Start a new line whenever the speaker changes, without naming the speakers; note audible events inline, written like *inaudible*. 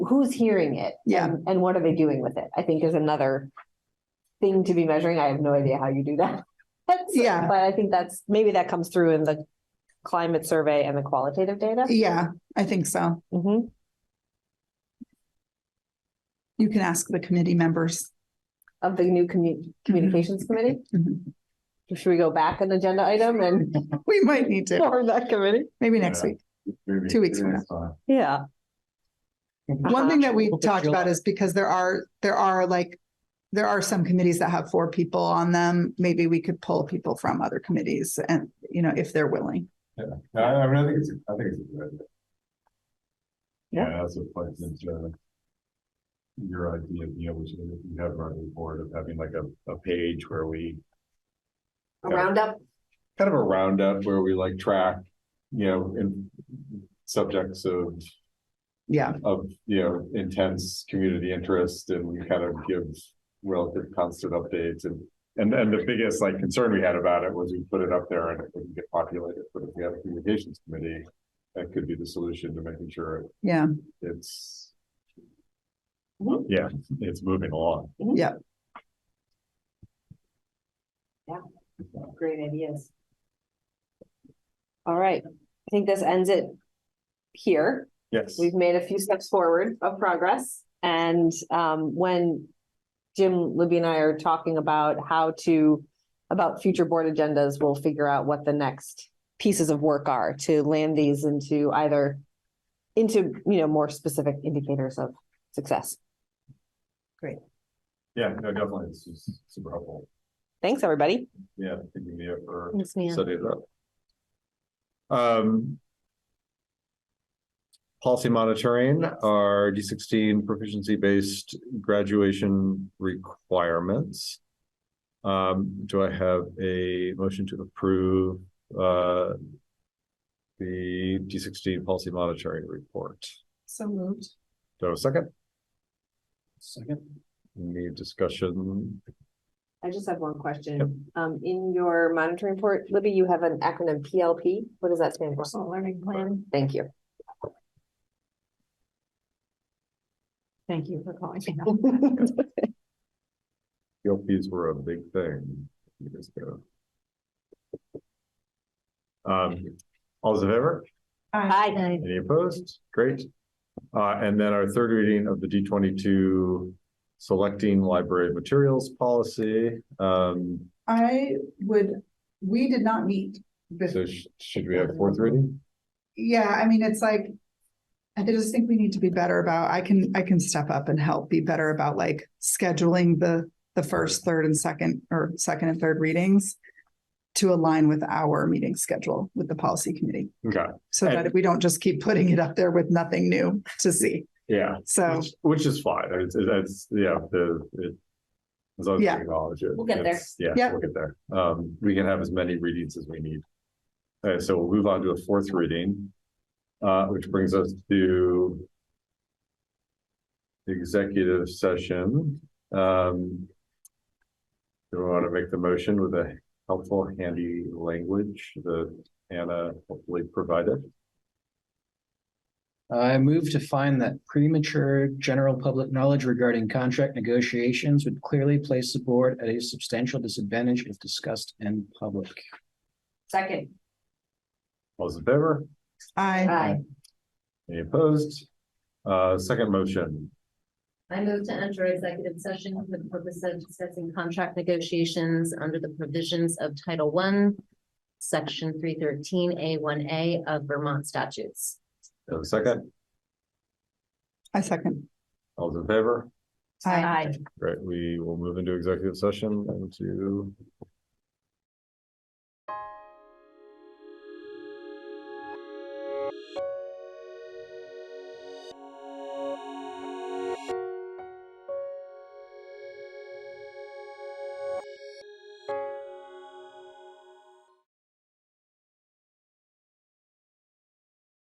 who's hearing it?
Yeah.
and- And what are they doing with it? I think is another thing to be measuring. I have no idea how you do that. *laughs* That's-
Yeah.
But I think that's, maybe that comes through in the climate survey and the qualitative data.
Yeah, I think so.
Mhm.
You can ask the committee members. *laughs*
Of the new commu- communications committee.
Mhm.
Should we go back an agenda item
*laughs*
and
We might need to,
form that committee?
maybe next week.
Maybe
Two weeks from
it is fine.
Yeah. Uh-huh.
One thing that we
Well,
talked
July-
about is because there are, there are like, there are some committees that have four people on them. Maybe we could pull people from other committees and, you know, if they're willing.
No, I, I mean, I think it's, I think it's a good idea.
Yeah.
Yeah, that's what plays into your idea, you know, which you have running board of having like a, a page where we
A roundup.
kind of a roundup where we like track, you know, in subjects of,
Yeah,
of, you know, intense community interest and we kind of give relative constant updates and and and the biggest like concern we had about it was we put it up there and it wouldn't get populated, but if we have a communications committee, that could be the solution to making sure
yeah.
it's
Mhm.
yeah, it's moving along.
Great ideas. All right, I think this ends it here.
Yes.
We've made a few steps forward of progress and um when Jim, Libby and I are talking about how to about future board agendas, we'll figure out what the next pieces of work are to land these into either into, you know, more specific indicators of success.
Yeah, no, definitely. It's just super helpful.
Thanks, everybody.
Yeah, thinking of it for
Thanks, Nan.
set it up. Um. Policy monitoring, our D sixteen proficiency based graduation requirements. Um, do I have a motion to approve, uh. The D sixteen policy monitoring report?
So moved.
Do I have a second?
Second.
Any discussion?
I just have one question. Um, in your monitoring report, Libby, you have an acronym PLP. What does that stand for? Personal Learning Plan. Thank you.
Thank you for
*laughs*
calling.
PLPs were a big thing years ago. Um, all those in favor?
Hi.
Any opposed? Great. Uh, and then our third reading of the D twenty-two selecting library materials policy. Um,
I would, we did not meet. bef-
so sh- should we have fourth reading?
Yeah, I mean, it's like, I just think we need to be better about, I can, I can step up and help be better about like scheduling the, the first, third and second, or second and third readings to align with our meeting schedule with the policy committee,
Okay,
so that we don't just keep putting it up there with nothing new to see.
yeah,
So,
which, which is fine. It's, it's, yeah, the, it. As long as we
Yeah.
acknowledge it.
We'll get there.
it's- Yeah,
Yeah.
we'll get there. Um, we can have as many readings as we need. Okay, so we'll move on to a fourth reading. Uh, which brings us to. Executive session, um. Do we want to make the motion with a helpful handy language that Anna hopefully provided?
I move to find that premature general public knowledge regarding contract negotiations would clearly place the board at a substantial disadvantage if discussed in public.
Second.
All those in favor?
I,
Hi.
Any opposed? Uh, second motion,
I move to enter executive session for the purpose of discussing contract negotiations under the provisions of Title One, Section three thirteen A one A of Vermont statutes.
Do I have a second,
I second.
all those in favor?
I,
Right, we will move into executive session into